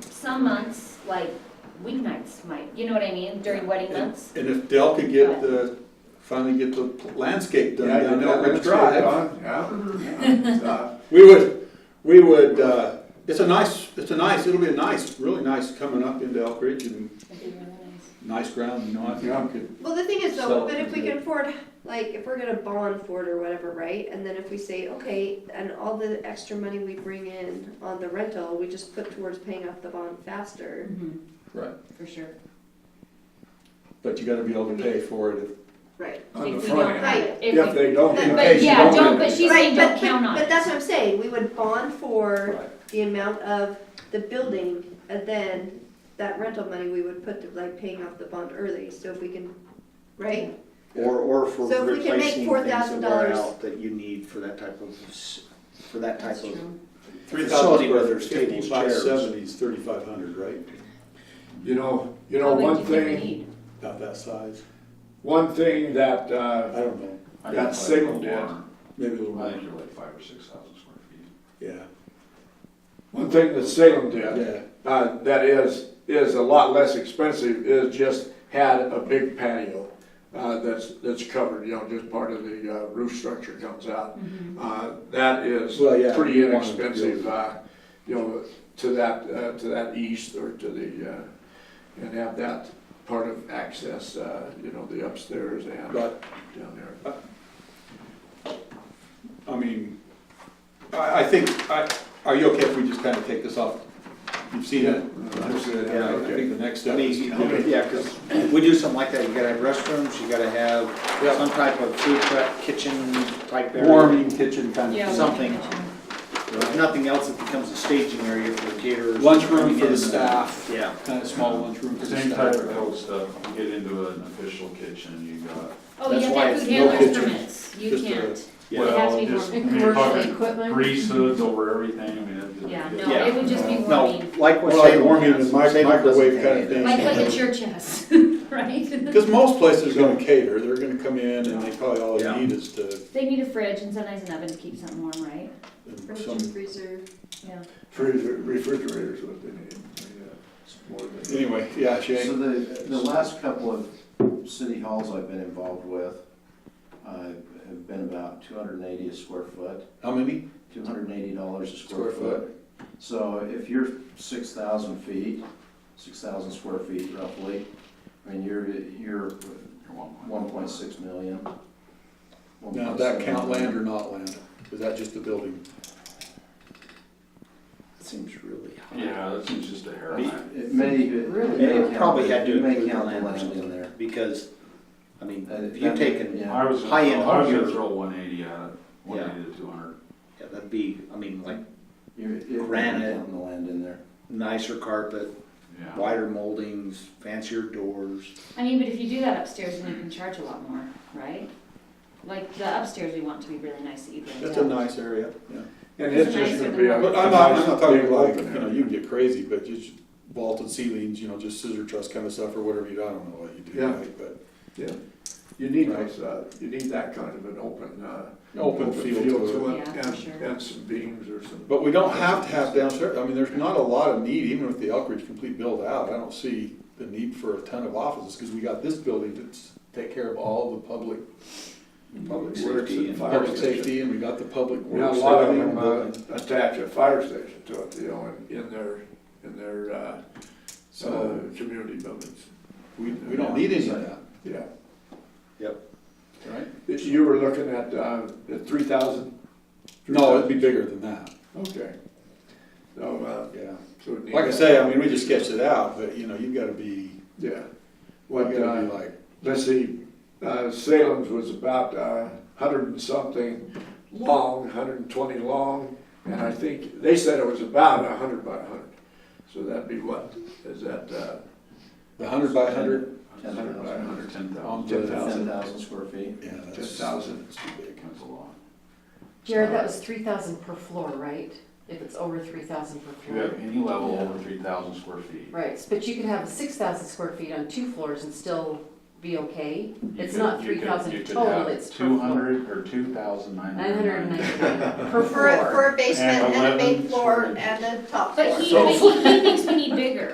some months, like weeknights might, you know what I mean, during wedding months. And if Dell could get the, finally get the landscape done Yeah, down you there got on Ridge landscape Drive, on, Yeah, Mm-hmm. yeah, so, we would, we would, uh, it's a nice, it's a nice, it'll be a nice, really nice coming up into Elk Ridge and That'd be really nice. nice ground, you know, I think Yeah. we could, Well, the thing is So- though, but if we can afford, like, if we're gonna bond for it or whatever, right? And then if we say, okay, and all the extra money we bring in on the rental, we just put towards paying off the bond faster. Mhm, right, For sure. but you gotta be able to pay for it. Right. on the If we front don't end. have it. If If we- they don't, But- in but case you yeah, don't. don't- do it. but she's- saying don't but- count but, on it. But that's what I'm saying, we would bond for Right. the amount of the building, and then that rental money we would put to like paying off the bond early, so if we can, right? Or, or for So if we can make replacing things that wear $4,000 out that you need for that type of, s- for that type That's of. true. Three Facility thousand where square there's tables, fifty-five chairs. seventies, thirty-five hundred, right, You know, you How know, big one do you think we thing, need? about that size, one thing that, I uh, don't know, I Got think signaled like it. one, maybe a little I more, think you're like five or six thousand square feet. yeah, one thing that Salem did, yeah, uh, that is, is a lot less expensive, is just had a big patio, uh, that's, that's covered, you know, just part of the uh, roof structure comes out. Uh, that is Well, yeah, pretty you want it to be inexpensive, uh, you know, to that, uh, to that east or to the, uh, and have that part of access, uh, you know, the upstairs and down but there. I mean, I, I think, I, are you okay if we just kind of take this off? You've seen it? Understood, yeah, Yeah, I okay. think the next I step mean, is to you give know, it- yeah, because we do something like that, you gotta have restrooms, you gotta have Yeah. some type of food prep, kitchen type area. warming kitchen kind Yeah, of. one Something. kitchen. If nothing else, it becomes a staging area for the caterers. Lunchroom for Yeah. the staff, Yeah. kind of small lunchroom for the Same type of staff. cool stuff, you get into an official kitchen, you got. Oh, you That's have to why have it's food no handlers kitchen. permits, you Just a- can't. Yeah. It has to Well, be just, I warm. mean, you're Commercial talking equipment? grease hoods over everything, I mean, it- Yeah, it- no, it would just be No, warming, like what More like Salem warming has. in mic- Salem doesn't microwave have kind of any thing. that. like what the church has, right? Because most places are gonna cater, they're gonna come in and they probably all Yeah. they need is to, They need a fridge and sometimes an oven to keep something warm, right? and Fridge some, and freezer. Yeah. Freezer, refrigerators, what they need. yeah, it's more than- anyway, yeah, So Shane, the, the last couple of city halls I've been involved with, uh, have been about two hundred and eighty a square foot, how many? two hundred and eighty dollars a Square square foot. foot. So if you're six thousand feet, six thousand square feet roughly, I mean, you're, You're you're one point. one point six million. Now, does that count land or not land? Is that just the building? Seems really high. Yeah, that seems just a hair line. It may, it They may count. probably had to it may include count the land or land in something, there. because, I mean, Uh, if you that- take an, yeah. I was, I High-end home was gonna here. throw one eighty at it, one eighty to two hundred. yeah, that'd be, I mean, like You're- it may Granite. count the land in there. nicer carpet, Yeah. wider moldings, fancier doors. I mean, but if you do that upstairs, then you can charge a lot more, right? Like the upstairs, we want to be really nice that you can. That's a nice area, yeah. And it's just gonna be a. But I'm not, I'm nice not talking big like, open you know, area. you can get crazy, but just vaulted ceilings, you know, just scissor truss kind of stuff or whatever you, do. I don't know what you do, Yeah. right, but Yeah, you need Right. those, uh, you need that kind of an open, uh. open field to it. Yeah, for sure. And, and some beams or some. But we don't have to have downstairs, I mean, there's not a lot of need, even with the Elk Ridge complete build out, I don't see the need for a ton of offices, because we got this building that's take care of all the public, Public Works safety and and fire public safety, and we got the public You know, works. a lot of everything them, built in. uh, attach a fire station to it, you know, in, in their, in their, uh, uh, So, community buildings, we, we don't need any of that, yeah. right? If You were looking at, uh, at three thousand? No, it'd be bigger than that, Okay. So, uh, yeah. so. it need- Like I say, I mean, we just sketched it out, but, you know, you've gotta be, Yeah. you What, gotta uh, be like, let's see, uh, Salem's was about a hundred and something long, hundred and twenty long, and I think, they said it was about a hundred by a hundred. So that'd be what, is that, uh, the hundred by hundred, Ten hundred by thousand. Under ten on thousand, the, Ten yeah, thousand. Ten thousand square feet. that's. Ten thousand. That's too big. that's a lot. Jared, that was three thousand per floor, right? If it's over three thousand per If you floor. have any level over three thousand square feet. Right, but you could have six thousand square feet on two floors and still be okay. you It's could- not you could- three thousand you could total, have it's per Two floor. hundred or two thousand nine Nine hundred hundred and and ninety ninety. per For a, floor. for a basement And and a main 11 floor stories. and a top floor. But he, but he he thinks we need